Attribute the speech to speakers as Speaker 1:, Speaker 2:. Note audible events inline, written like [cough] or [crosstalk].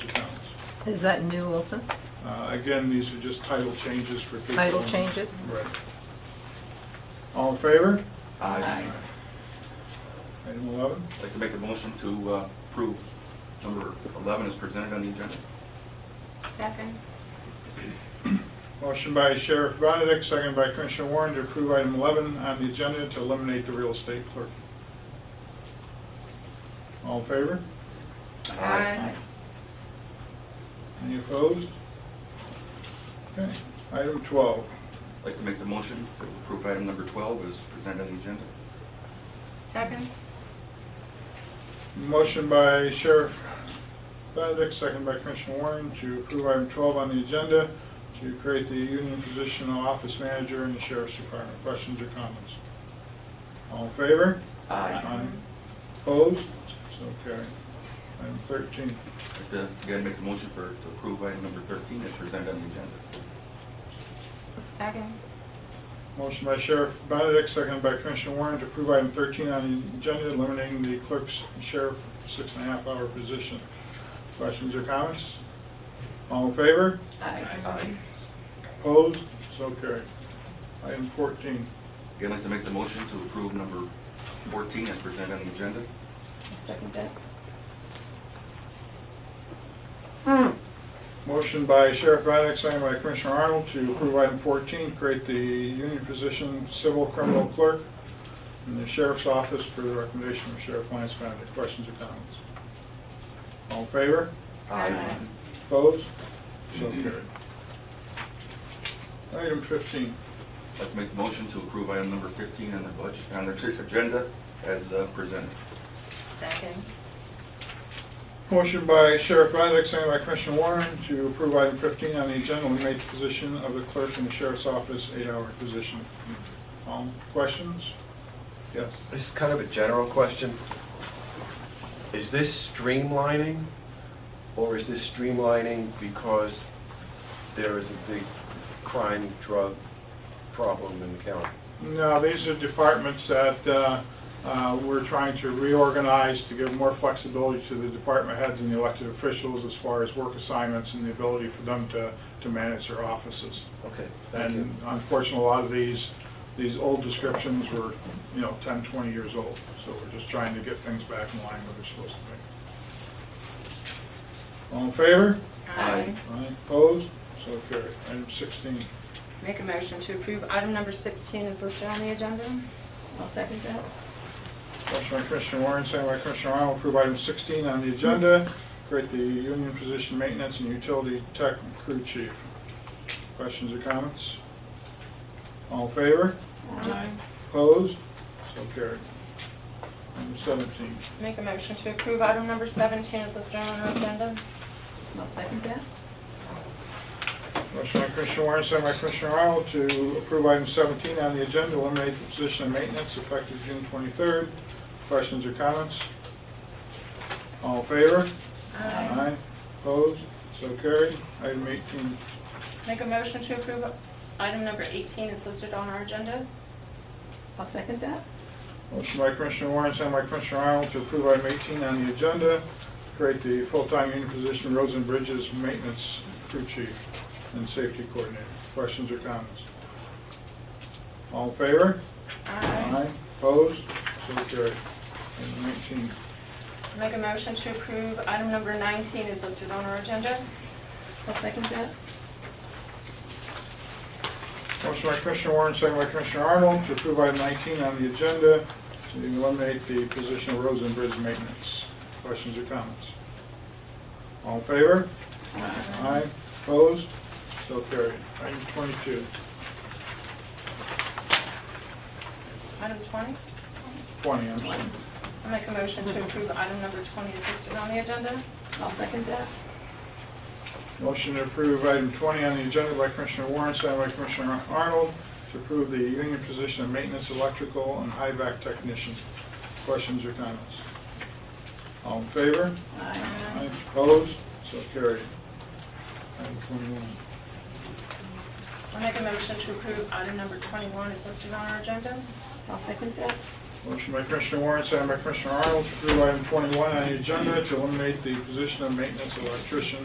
Speaker 1: Is that new also?
Speaker 2: Uh, Again, these are just title changes for people.
Speaker 1: Title changes?
Speaker 2: Right. All in favor?
Speaker 3: I'd
Speaker 2: Item 11,
Speaker 3: like to make a motion to uh, approve number 11 is presented on the agenda.
Speaker 4: Second.
Speaker 2: motion by Sheriff Benedict, second by Commissioner Warren to approve item 11 on the agenda to eliminate the real estate clerk. All in favor?
Speaker 4: Aye.
Speaker 2: Any opposed? Okay, item 12,
Speaker 3: I'd like to make the motion to approve item number 12 is presented on the agenda.
Speaker 4: Second.
Speaker 2: motion by Sheriff Benedict, second by Commissioner Warren to approve item 12 on the agenda to create the union position of office manager in the sheriff's department. Questions or comments? All in favor? Aye. Opposed? So carried. Item 13.
Speaker 3: I'd like to, again, make a motion for, to approve item number 13 is presented on the agenda.
Speaker 4: Second.
Speaker 2: Motion by Sheriff Benedict, seconded by Commissioner Warren to approve item 13 on the agenda, eliminating the clerk's and sheriff six and a half hour position. Questions or comments? All in favor?
Speaker 3: Aye.
Speaker 2: Opposed? So carried. Item 14.
Speaker 3: Again, I'd like to make the motion to approve number 14 is presented on the agenda.
Speaker 1: Second that.
Speaker 2: Motion by Sheriff Benedict, seconded by Commissioner Arnold to approve item 14, create the union position civil criminal clerk in the sheriff's office per the recommendation of Sheriff Lance Benedict. Questions or comments? All in favor?
Speaker 4: Aye.
Speaker 2: Opposed? So carried. Item 15.
Speaker 3: I'd like to make the motion to approve item number 15 on the budget, on the [laughs] agenda as uh, presented.
Speaker 4: Second.
Speaker 2: Motion by Sheriff Benedict, second by Commissioner Warren to approve item 15 on the agenda, eliminate the position of the clerk in the sheriff's office, eight-hour position. Um, Questions? Yes.
Speaker 5: This is kind of a general question. Is this streamlining, or is this streamlining because there is a big crime, drug problem in the county?
Speaker 2: No, these are departments that uh, uh, we're trying to reorganize to give more flexibility to the department heads and the elected officials as far as work assignments and the ability for them to to manage their offices.
Speaker 5: Okay, thank you.
Speaker 2: And unfortunately, a lot of these, these old descriptions were, you know, 10, 20 years old. So we're just trying to get things back in line where they're supposed to be. All in favor?
Speaker 3: Aye.
Speaker 2: Aye. Opposed? So carried. Item 16.
Speaker 4: Make a motion to approve item number 16 is listed on the agenda. I'll second that.
Speaker 2: Motion by Commissioner Warren, second by Commissioner Arnold, approve item 16 on the agenda, create the union position maintenance and utility tech crew chief. Questions or comments? All in favor?
Speaker 4: Aye.
Speaker 2: Opposed? So carried. Item 17.
Speaker 4: Make a motion to approve item number 17 is listed on the agenda. I'll second that.
Speaker 2: Motion by Commissioner Warren, second by Commissioner Arnold to approve item 17 on the agenda, eliminate the position of maintenance effective June 23rd. Questions or comments? All in favor? Aye. Opposed? So carried. Item 18.
Speaker 4: Make a motion to approve item number 18 is listed on our agenda. I'll second that.
Speaker 2: Motion by Commissioner Warren, second by Commissioner Arnold to approve item 18 on the agenda, create the full-time union position roads and bridges maintenance crew chief and safety coordinator. Questions or comments? All in favor?
Speaker 4: Aye.
Speaker 2: Opposed? So carried. Item 19.
Speaker 4: Make a motion to approve item number 19 is listed on our agenda. I'll second that.
Speaker 2: Motion by Commissioner Warren, second by Commissioner Arnold, to approve item 19 on the agenda, to eliminate the position of roads and bridge maintenance. Questions or comments? All in favor? Aye. Opposed? So carried. Item 22.
Speaker 4: Item 20?
Speaker 2: 20, I'm sorry.
Speaker 4: I make a motion to approve item number 20 is listed on the agenda. I'll second that.
Speaker 2: Motion to approve item 20 on the agenda by Commissioner Warren, second by Commissioner Arnold, to approve the union position of maintenance electrical and high-vac technician. Questions or comments? All in favor? Aye. Opposed? So carried. Item 21.
Speaker 4: I make a motion to approve item number 21 is listed on our agenda. I'll second that.
Speaker 2: Motion by Commissioner Warren, second by Commissioner Arnold, to approve item 21 on the agenda to eliminate the position of maintenance electrician